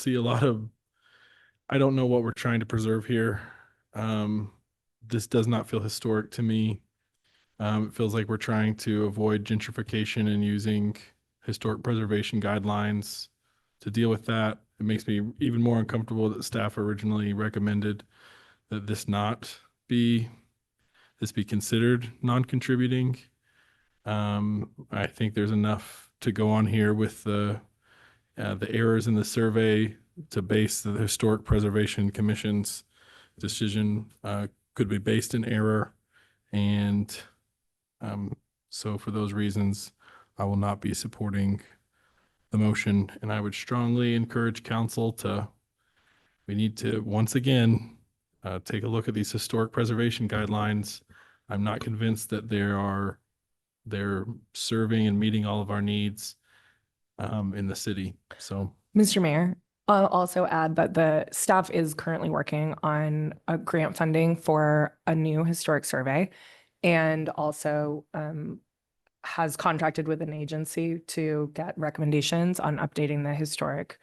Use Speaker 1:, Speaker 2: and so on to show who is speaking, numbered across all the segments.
Speaker 1: see a lot of, I don't know what we're trying to preserve here. Um, this does not feel historic to me. Um, it feels like we're trying to avoid gentrification and using historic preservation guidelines to deal with that. It makes me even more uncomfortable that staff originally recommended that this not be, this be considered non-contributing. Um, I think there's enough to go on here with the, uh, the errors in the survey to base the Historic Preservation Commission's decision, uh, could be based in error. And, um, so for those reasons, I will not be supporting the motion and I would strongly encourage council to, we need to, once again, uh, take a look at these historic preservation guidelines. I'm not convinced that there are, they're serving and meeting all of our needs um, in the city. So
Speaker 2: Mr. Mayor, I'll also add that the staff is currently working on a grant funding for a new historic survey and also um, has contracted with an agency to get recommendations on updating the historic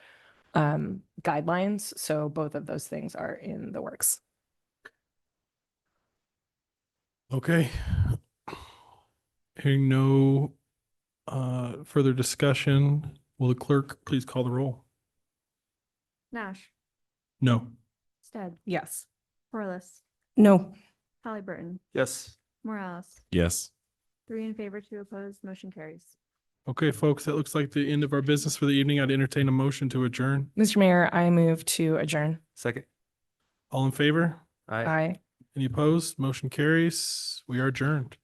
Speaker 2: um, guidelines. So both of those things are in the works.
Speaker 1: Okay. Hearing no uh, further discussion, will the clerk please call the roll?
Speaker 3: Nash,
Speaker 1: No.
Speaker 3: Stead,
Speaker 2: Yes.
Speaker 3: Corliss,
Speaker 2: No.
Speaker 3: Hallie Burton,
Speaker 4: Yes.
Speaker 3: Morales.
Speaker 4: Yes.
Speaker 3: Three in favor, two opposed, motion carries.
Speaker 1: Okay, folks, that looks like the end of our business for the evening. I'd entertain a motion to adjourn.
Speaker 2: Mr. Mayor, I move to adjourn.
Speaker 4: Second.
Speaker 1: All in favor?
Speaker 4: Aye.
Speaker 2: Aye.
Speaker 1: Any opposed? Motion carries. We are adjourned.